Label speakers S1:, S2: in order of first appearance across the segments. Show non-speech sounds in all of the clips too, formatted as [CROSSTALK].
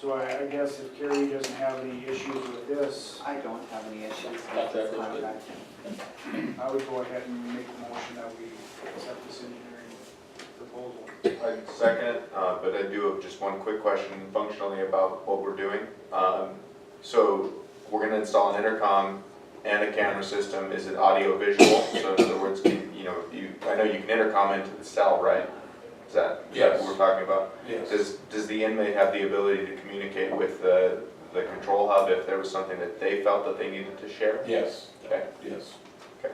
S1: So I, I guess if Kerry doesn't have any issues with this,
S2: I don't have any issues with
S3: Contract is
S2: this
S3: good.
S2: contract.
S1: I would go ahead and make the motion that we accept this engineering proposal.
S4: I second, it, uh, but I do have just one quick question functionally about what we're doing. Um, So we're gonna install an intercom and a camera system, is it audio visual? So in other words, can- you know, you, I know you can intercom into the cell, right? Is that, is that what we're talking about? Does, does the inmate have the ability to communicate with the, the control hub if there was something that they felt that they needed to share?
S3: Yes,
S4: Okay,
S3: yes. Like,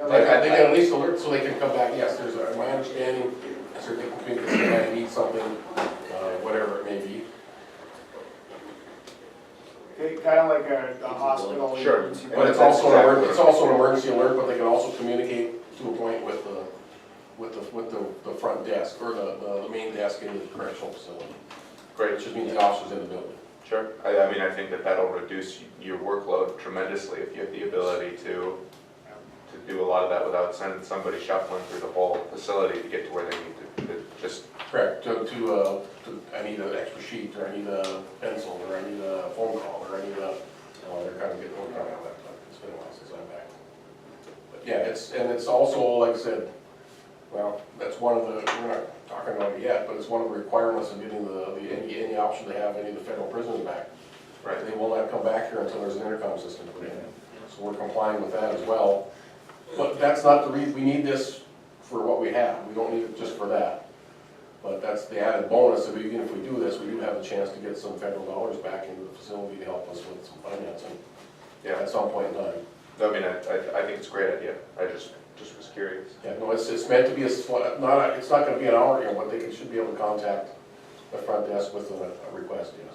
S4: Okay.
S3: I think at least alert so they can come back, yes, there's, a- my understanding, so they can think that somebody needs something, uh, whatever it may be.
S1: Okay, kinda like a, a hospital.
S4: Sure.
S1: emergency
S3: But it's also an emer, it's also an emergency alert, but they can also communicate to a point with the, with the, with the, the front desk or the, the- the main desk in the correctional facility.
S4: Great,
S3: Which just means the officers in the building.
S4: Sure, I, I mean, I think that that'll reduce y- your workload tremendously if you have the ability to, to do a lot of that without sending somebody shuffling through the whole facility to get to where they need to, to just,
S3: Correct, to, to, uh, to, I need an extra sheet, or I need a pencil, or I need a phone call, or I need a, oh, they're kind of getting worked on that laptop, it's been a while since I'm back. But yeah, it's, and it's also, like I said, well, that's one of the, we're not talking about it yet, but it's one of the requirements of getting the, the, any, any option to have any of the federal prisoners back.
S4: right?
S3: They will not come back here until there's an intercom system put in, so we're complying with that as well. But that's not the reason, we need this for what we have, we don't need it just for that. But that's the added bonus, that we even if we do this, we do have a chance to get some federal dollars back into the facility to help us with some financing
S4: Yeah,
S3: at some point in time.
S4: I mean, I, I, I think it's a great idea, I just, just was curious.
S3: Yeah, no, it's, it's meant to be a, sw- not, a- it's not gonna be an hour, you know, but they should be able to contact the front desk with a a request, yes.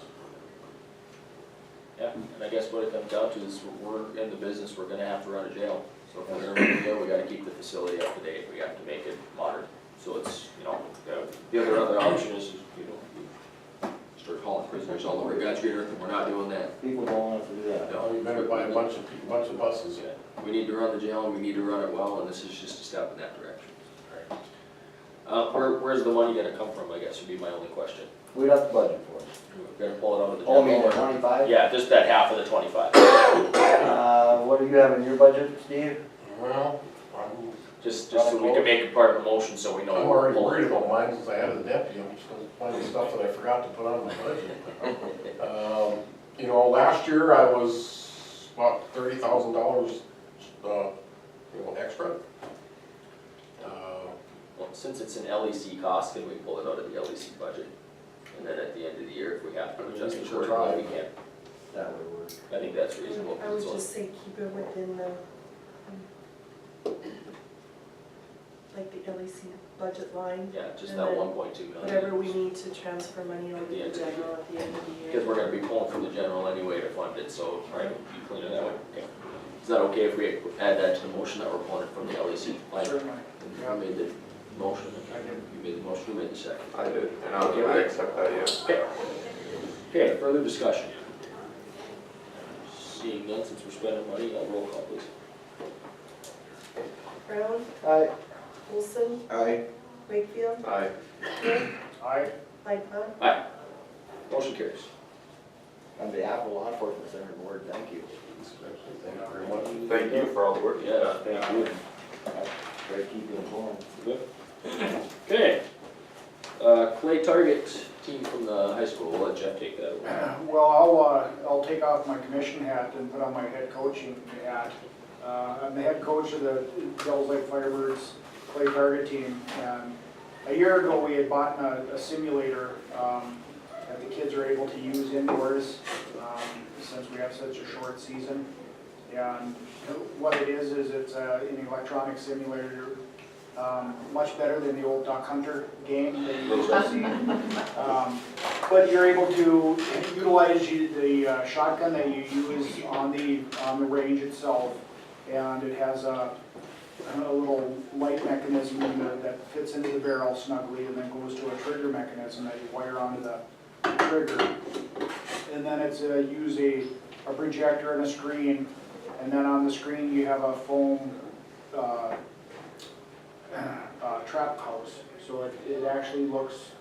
S5: Yeah, and I guess what it comes down to is we're in the business, we're gonna have to run a jail. So if we're gonna run a jail, we gotta keep the facility up to date, we have to make it modern. So it's, you know, uh, the other, other option is, you know, we start calling prisoners all over Godrich, and we're not doing that.
S2: People don't want to do that.
S3: Now, you better buy a bunch of, pe- bunch of buses.
S5: Yeah, We need to run the jail and we need to run it well, and this is just a step in that direction. Uh, where, where's the money gonna come from, I guess, would be my only question.
S2: We'd have to budget for it.
S5: We're gonna pull it out of the
S2: Oh, I mean,
S5: general
S2: the
S5: or-
S2: twenty-five?
S5: Yeah, just that half of the twenty-five,
S2: Uh, what do you have in your budget, Steve?
S3: Well, I'm
S5: just, just so we can make it part of a motion, so we know.
S3: I'm
S5: we're
S3: already
S5: pulling.
S3: worried about mine since I added the deputy, I'm just gonna find the stuff that I forgot to put on my budget. [LAUGHS] Um, You know, last year I was about thirty thousand dollars, uh, you know, extra. Uh,
S5: Well, since it's an LEC cost, can we pull it out of the LEC budget? And then at the end of the year, if we have to adjust it
S3: Sure try.
S5: accordingly, we can.
S2: That would work.
S5: I think that's reasonable.
S6: I would
S5: So-
S6: just say keep it within the, um, like the LEC budget line,
S5: Yeah, just
S6: and
S5: that
S6: then
S5: one point two million.
S6: whatever we need to transfer money over
S5: At
S6: to
S5: the end of the
S6: general at the end of the
S5: Because
S6: year.
S5: we're gonna be pulling from the general anyway to fund it, so, right, you clean it that way. Okay. Is that okay if we add that to the motion that we're pulling it from the LEC line?
S1: Certainly,
S5: You made the motion,
S1: I did.
S5: you made the motion, you made the second.
S4: I did, and I, I accept that, yeah.
S5: Okay. Okay, further discussion? Seeing none, since we're spending money, I'll roll call please.
S6: Brown,
S2: Aye.
S6: Olson,
S2: Aye.
S6: Wakefield,
S4: Aye,
S6: Nick,
S1: Aye,
S6: Lightfoot,
S5: Motion carries.
S2: On behalf of law enforcement center board, thank you.
S3: Thank you very much.
S4: thank you for all the work you've done.
S5: Yeah, thank you.
S2: Try to keep you informed.
S5: Okay. Uh, Clay Target team from the high school, we'll let Jeff take that over.
S1: well, I'll, uh, I'll take off my commission hat and put on my head coaching hat. Uh, I'm the head coach of the Devils Lake Firebirds clay target team, and a year ago, we had bought a a simulator, um, that the kids are able to use indoors, um, since we have such a short season. And what it is, is it's uh, an electronic simulator, um, much better than the old Duck Hunter game that you used to see. Um, But you're able to utilize you- the uh, shotgun that you use on the, on the range itself. And it has a, a little light mechanism that- that fits into the barrel snugly and then goes to a trigger mechanism that you wire onto the trigger. And then it's, uh, use a, a projector and a screen and then on the screen, you have a foam [CLEARS THROAT] uh, uh, trap house. So it, it actually looks